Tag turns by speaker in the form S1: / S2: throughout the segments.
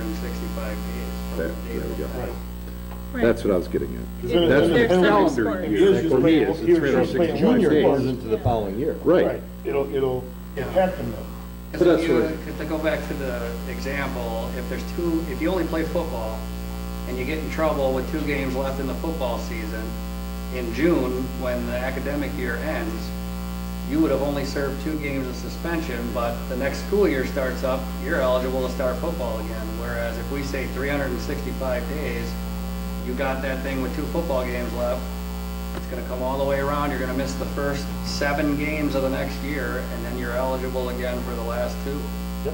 S1: 365 days.
S2: There-
S1: from the date
S2: there we
S1: of
S2: go.
S1: filing.
S3: Right.
S2: That's what I was getting at.
S4: Because then-
S2: That's
S4: then
S2: the
S4: the penalty-
S2: calendar
S4: here's
S2: year.
S4: just
S2: For me,
S4: playing-
S2: it's
S4: here's just playing
S2: 365
S4: junior
S2: days.
S4: part.
S5: goes into the following year.
S2: Right.
S4: It'll, it'll
S1: Yeah.
S4: happen though.
S2: So
S1: Because
S2: that's
S1: if you,
S2: what I-
S1: if to go back to the example, if there's two, if you only play football and you get in trouble with two games left in the football season, in June, when the academic year ends, you would have only served two games of suspension, but the next school year starts up, you're eligible to start football again. Whereas if we say 365 days, you got that thing with two football games left, it's gonna come all the way around, you're gonna miss the first seven games of the next year, and then you're eligible again for the last two.
S4: Yep.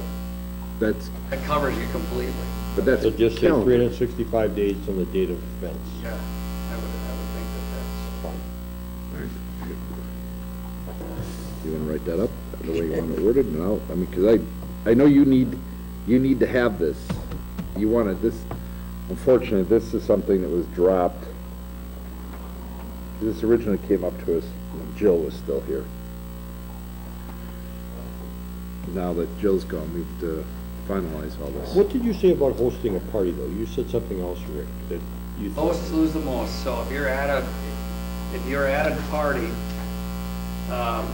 S2: That's,
S1: That covers you completely.
S2: but that's
S5: So just say three hundred
S2: calendar.
S5: and sixty-five days from the date of offense.
S1: Yeah, I would, I would think that
S5: Fine.
S2: Alright. You wanna write that up, the way you want it worded, and I'll, I mean, cause I, I know you need, you need to have this. You wanna, this, unfortunately, this is something that was dropped. This originally came up to us, when Jill was still here. Now that Jill's gone, we've to finalize all this.
S5: What did you say about hosting a party, though? You said something else, Rick, that you
S1: that's, most lose the most, so if you're at a, if you're at a party, um,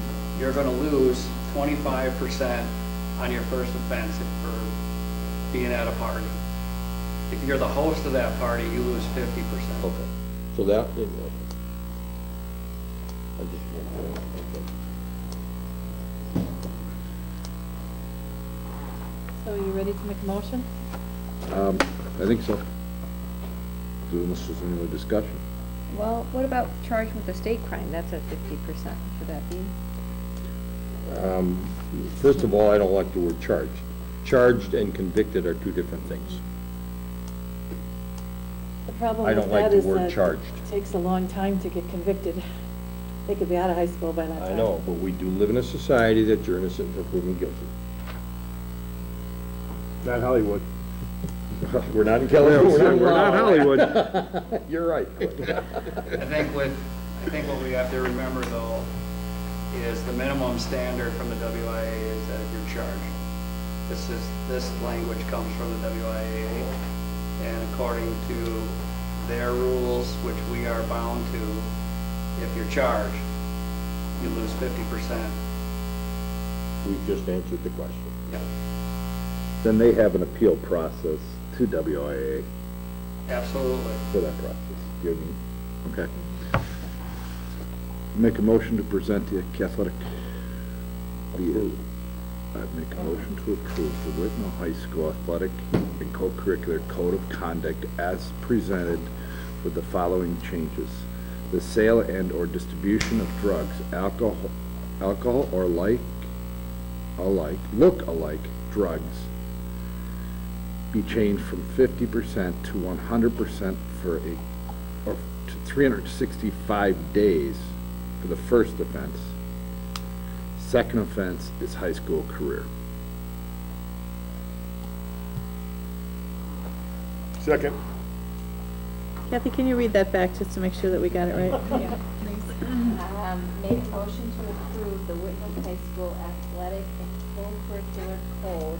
S1: you're gonna lose twenty-five percent on your first offense for being at a party. If you're the host of that party, you lose fifty percent.
S5: Okay, so that, okay. I just want to- okay.
S3: So you ready to make a motion?
S2: Um, I think so. Unless there's any other discussion.
S6: Well, what about charged with a state crime? That's at fifty percent. Should that be?
S5: Um, First of all, I don't like the word charged. Charged and convicted are two different things.
S3: The problem
S5: I don't
S3: with
S5: like
S3: that
S5: the
S3: is
S5: word
S3: that
S5: charged.
S3: it takes a long time to get convicted. They could be out of high school by that time.
S5: I know, but we do live in a society that you're innocent until proven guilty.
S4: Not Hollywood.
S5: We're not in California.
S2: We're not Hollywood.
S5: You're right.
S1: I think with, I think what we have to remember though, is the minimum standard from the WIA is that you're charged. This is, this language comes from the WIA, and according to their rules, which we are bound to, if you're charged, you lose fifty percent.
S5: We just answered the question.
S1: Yep,
S2: Then they have an appeal process to WIA
S1: absolutely.
S2: for that process. You know what I mean? Okay. Make a motion to present the athletic. Approve. I'd make a motion to approve the Whitnall High School Athletic and Co-Curricular Code of Conduct as presented with the following changes. The sale and/or distribution of drugs, alcohol, alcohol or like, alike, look-alike drugs be changed from fifty percent to one hundred percent for a, or to three hundred sixty-five days for the first offense. Second offense is high school career.
S4: Second.
S7: Kathy, can you read that back just to make sure that we got it right?
S8: Um, Made a motion to approve the Whitman High School athletic and co-curricular code,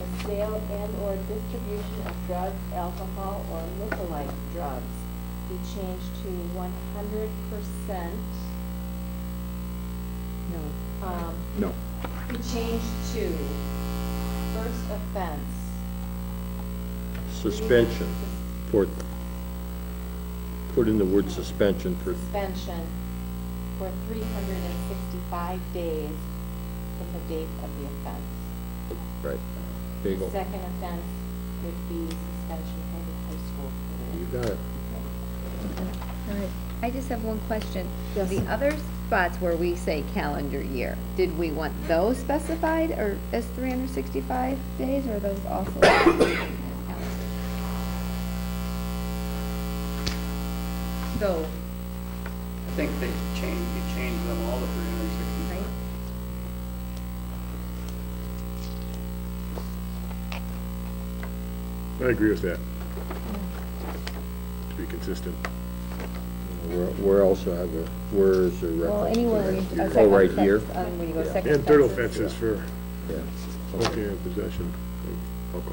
S8: the sale and/or distribution of drugs, alcohol, or lookalike drugs be changed to one hundred percent,
S3: No.
S8: um,
S2: No,
S8: be changed to first offense.
S5: Suspension for, put in the word suspension for,
S8: Suspension for three hundred and sixty-five days from the date of the offense.
S5: right, bagel.
S8: Second offense would be suspension for the high school
S5: You
S8: career.
S5: got it.
S6: I just have one question.
S3: Yes.
S6: The other spots where we say calendar year, did we want those specified or as three hundred sixty-five days or are those also? So,
S1: I think they changed, you changed them all to three hundred and sixty-five.
S6: right?
S4: I agree with that. To be consistent.
S5: Where where else do I have a, where is the reference?
S6: Well,
S5: to
S6: anywhere
S5: that?
S6: we, a second offense.
S5: Oh, right here?
S6: um, When you go second offense.
S4: And third offenses for
S5: Yeah.
S4: okay possession.